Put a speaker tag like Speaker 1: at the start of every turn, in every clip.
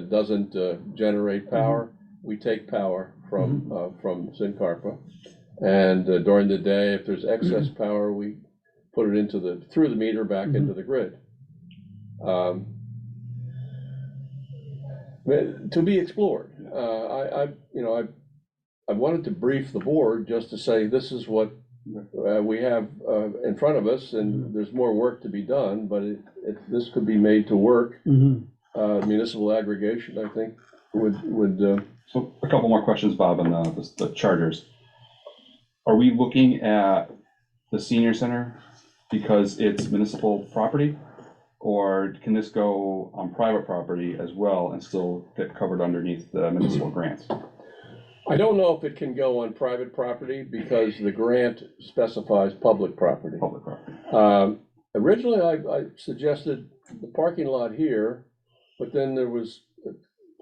Speaker 1: that doesn't uh, generate power, we take power from, uh, from Sincarpa. And uh, during the day, if there's excess power, we put it into the, through the meter back
Speaker 2: Mhm.
Speaker 1: into the grid. Um, but To be explored. Uh, I, I, you know, I, I wanted to brief the board just to say, this is what uh, we have uh, in front of us, and there's more work to be done, but it, it- this could be made to work
Speaker 2: Mhm.
Speaker 1: uh, municipal aggregation, I think, would, would, uh,
Speaker 3: So a couple more questions, Bob, on the, the- the chargers. Are we looking at the senior center because it's municipal property? Or can this go on private property as well and still get covered underneath the municipal grants?
Speaker 1: I don't know if it can go on private property because the grant specifies public property.
Speaker 3: Public property.
Speaker 1: Um, Originally, I, I suggested the parking lot here, but then there was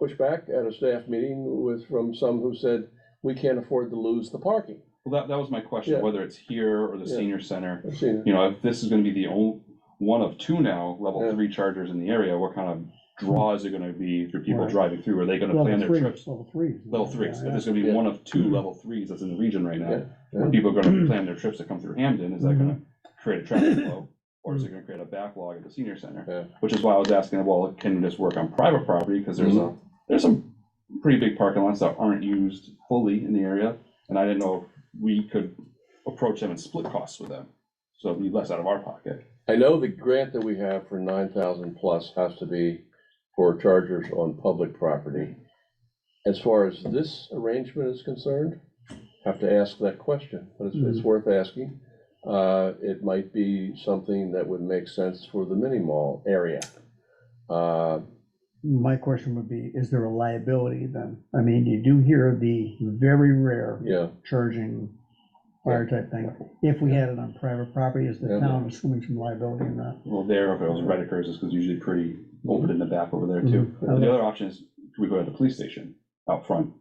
Speaker 1: pushback at a staff meeting with, from some who said, we can't afford to lose the parking.
Speaker 3: Well, that, that was my question,
Speaker 1: Yeah.
Speaker 3: whether it's here or the
Speaker 1: Yeah.
Speaker 3: senior center.
Speaker 1: I've seen it.
Speaker 3: You know, if this is gonna be the only, one of two now, level
Speaker 1: Yeah.
Speaker 3: three chargers in the area, what kind of draw is it gonna be for people
Speaker 2: Right.
Speaker 3: driving through? Are they gonna plan
Speaker 2: Level
Speaker 3: their
Speaker 2: three,
Speaker 3: trips?
Speaker 2: level three.
Speaker 3: level threes, if
Speaker 2: Yeah,
Speaker 3: there's gonna be
Speaker 1: Yeah.
Speaker 3: one of two level threes that's in the region right
Speaker 1: Yeah,
Speaker 3: now, where
Speaker 1: yeah. Mm-hmm.
Speaker 3: people are gonna plan their trips to come through Hamden, is that gonna create a traffic flow? Or is it gonna create a backlog at the senior
Speaker 1: Yeah.
Speaker 3: center? Which is why I was asking, well, can this work on private property, because there's
Speaker 1: Mm-hmm.
Speaker 3: a, there's some pretty big parking lots that aren't used fully in the area, and I didn't know if we could approach them and split costs with them, so it'd be less out of our pocket.
Speaker 1: I know the grant that we have for nine thousand plus has to be for chargers on public property. As far as this arrangement is concerned, have to ask that question, but it's, it's
Speaker 2: Mm-hmm.
Speaker 1: worth asking. Uh, it might be something that would make sense for the mini mall area. Uh,
Speaker 2: My question would be, is there a liability then? I mean, you do hear the very rare
Speaker 1: yeah,
Speaker 2: charging fire type thing. If we had it on private property, is the
Speaker 1: Yeah.
Speaker 2: town assuming some liability in that?
Speaker 3: Well, there, if it was Reddickers, it's because usually pretty open in the back over there too.
Speaker 2: Mhm.
Speaker 3: And The other option is, we go to the police station out front,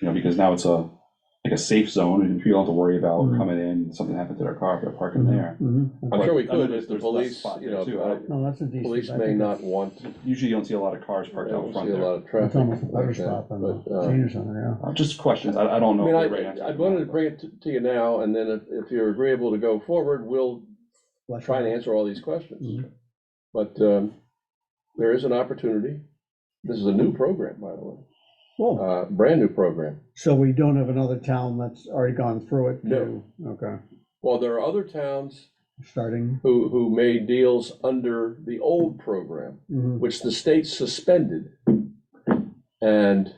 Speaker 3: you know, because now it's a, like a safe zone, and people don't have to worry about
Speaker 2: Mhm.
Speaker 3: coming in, something happened to their car, if they're parking there.
Speaker 2: Mhm.
Speaker 1: I'm
Speaker 3: But
Speaker 1: sure we
Speaker 3: I know
Speaker 1: could,
Speaker 3: there's-
Speaker 1: if the
Speaker 3: there's less
Speaker 1: police,
Speaker 3: spot
Speaker 1: you
Speaker 3: there,
Speaker 1: know,
Speaker 3: too. I
Speaker 1: uh,
Speaker 3: don't-
Speaker 2: No, that's a decent.
Speaker 1: police
Speaker 2: I
Speaker 1: may
Speaker 2: think
Speaker 1: not
Speaker 2: that's-
Speaker 1: want, they
Speaker 3: Usually you don't see a lot of cars parked out
Speaker 1: don't
Speaker 3: front
Speaker 1: see a
Speaker 3: there.
Speaker 1: lot of
Speaker 2: It's
Speaker 1: traffic.
Speaker 2: almost a better
Speaker 1: like that,
Speaker 2: stop than
Speaker 1: but,
Speaker 2: the
Speaker 1: uh,
Speaker 2: senior center,
Speaker 3: Uh, Just questions, I, I
Speaker 1: I
Speaker 3: don't know.
Speaker 1: mean,
Speaker 3: if they're right next
Speaker 1: I, I
Speaker 3: to
Speaker 1: wanted to
Speaker 3: each other,
Speaker 1: bring it to- to you now, and then if, if you're agreeable to go forward, we'll
Speaker 2: yeah.
Speaker 1: try and answer all these questions.
Speaker 2: Mhm.
Speaker 1: But um, there is an opportunity. This is a new program, by the way,
Speaker 2: Well,
Speaker 1: uh, brand-new program.
Speaker 2: so we don't have another town that's already gone through it?
Speaker 1: No.
Speaker 2: to- Okay,
Speaker 1: While there are other towns
Speaker 2: starting.
Speaker 1: who, who made deals under the old program,
Speaker 2: Mhm.
Speaker 1: which the state suspended. And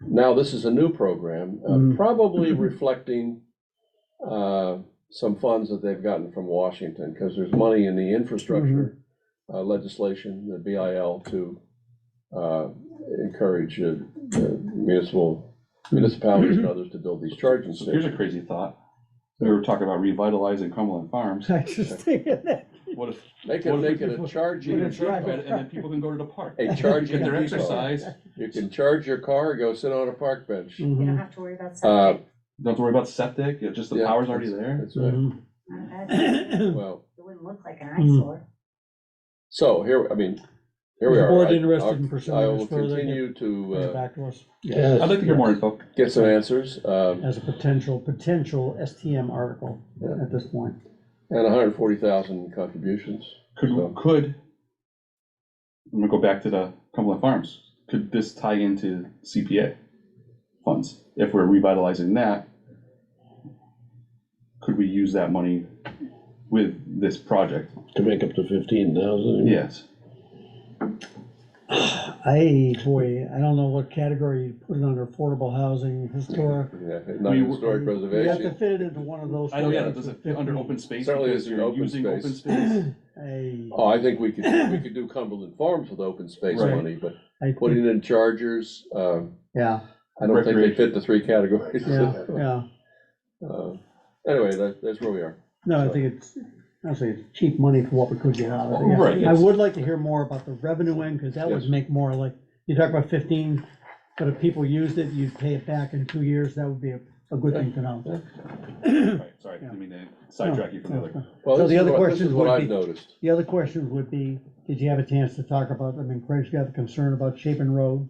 Speaker 1: now this is a new program, uh,
Speaker 2: Mm.
Speaker 1: probably reflecting uh, some funds that they've gotten from Washington, because there's money in the infrastructure uh, legislation, the BIL, to uh, encourage uh, uh, municipal, municipalities and others to build these charging
Speaker 3: So here's
Speaker 1: stations.
Speaker 3: a crazy thought, we were talking about revitalizing Cumberland Farms,
Speaker 2: I just think of that.
Speaker 3: what if,
Speaker 1: They can
Speaker 3: What if
Speaker 1: make
Speaker 3: we
Speaker 1: it a
Speaker 3: put-
Speaker 1: charging,
Speaker 2: We're
Speaker 3: and
Speaker 2: gonna drive it.
Speaker 3: then people can go to the park,
Speaker 1: a
Speaker 3: get
Speaker 1: charging
Speaker 3: their
Speaker 1: depot.
Speaker 3: exercise,
Speaker 1: You can charge your car, go sit on a park bench.
Speaker 4: You don't
Speaker 2: Mhm.
Speaker 4: have to worry about
Speaker 1: Uh,
Speaker 4: something.
Speaker 3: don't have to worry about septic, it just the
Speaker 1: Yeah.
Speaker 3: power's already there.
Speaker 1: That's
Speaker 2: Mm-hmm.
Speaker 1: right.
Speaker 4: It
Speaker 2: Mhm.
Speaker 1: Well,
Speaker 4: wouldn't look like an
Speaker 2: Mm.
Speaker 4: eyesore.
Speaker 1: so here, I mean, here we
Speaker 2: Is the
Speaker 1: are.
Speaker 2: board
Speaker 1: I-
Speaker 2: interested
Speaker 1: I'll-
Speaker 2: in pursuing
Speaker 1: I
Speaker 2: this
Speaker 1: will
Speaker 2: further?
Speaker 1: continue to
Speaker 2: Bring it
Speaker 1: uh,
Speaker 2: back to us
Speaker 3: I'd like to hear more info.
Speaker 1: get some answers, um,
Speaker 2: as a potential, potential STM article
Speaker 1: Yeah.
Speaker 2: at this point.
Speaker 1: and hundred and forty thousand contributions. So-
Speaker 3: Could, could, I'm gonna go back to the Cumberland Farms, could this tie into CPA funds? If we're revitalizing that, could we use that money with this project?
Speaker 5: To make up to fifteen thousand?
Speaker 3: Yes.
Speaker 2: I, boy, I don't know what category you put it under, affordable housing, historic.
Speaker 1: Yeah, not
Speaker 3: We-
Speaker 1: historic
Speaker 2: You have to
Speaker 1: preservation.
Speaker 2: fit it into one of those.
Speaker 3: I know, yeah, it
Speaker 2: four
Speaker 3: doesn't,
Speaker 2: to
Speaker 3: under
Speaker 2: 15.
Speaker 3: open space,
Speaker 1: Certainly
Speaker 3: because
Speaker 1: it's an
Speaker 3: you're
Speaker 1: open
Speaker 3: using open
Speaker 1: space.
Speaker 3: space.
Speaker 2: I,
Speaker 1: Oh, I think we could, we could do Cumberland Farms with open space
Speaker 3: Right.
Speaker 1: money, but
Speaker 2: I, think-
Speaker 1: putting in chargers, um,
Speaker 2: yeah,
Speaker 1: I don't think they
Speaker 3: Recreation.
Speaker 1: fit the three categories.
Speaker 2: yeah, yeah.
Speaker 1: Uh, Anyway, that, that's where we are.
Speaker 2: No, I think it's, honestly, it's cheap money for what we could get out of it. yeah.
Speaker 3: Right,
Speaker 2: I
Speaker 3: yes.
Speaker 2: would like to hear more about the revenue end, because that would
Speaker 1: Yes.
Speaker 2: make more like, you talk about fifteen, but if people used it, you'd pay it back in two years, that would be a, a good thing to know.
Speaker 3: Right, Sorry, didn't mean to sidetrack you from the other.
Speaker 1: Well,
Speaker 2: So
Speaker 1: this
Speaker 2: the
Speaker 1: is
Speaker 2: other
Speaker 1: what-
Speaker 2: question
Speaker 1: This is what
Speaker 2: would
Speaker 1: I've
Speaker 2: be-
Speaker 1: noticed.
Speaker 2: The other question would be, did you have a chance to talk about, I mean, Craig's got the concern about Chapin Road,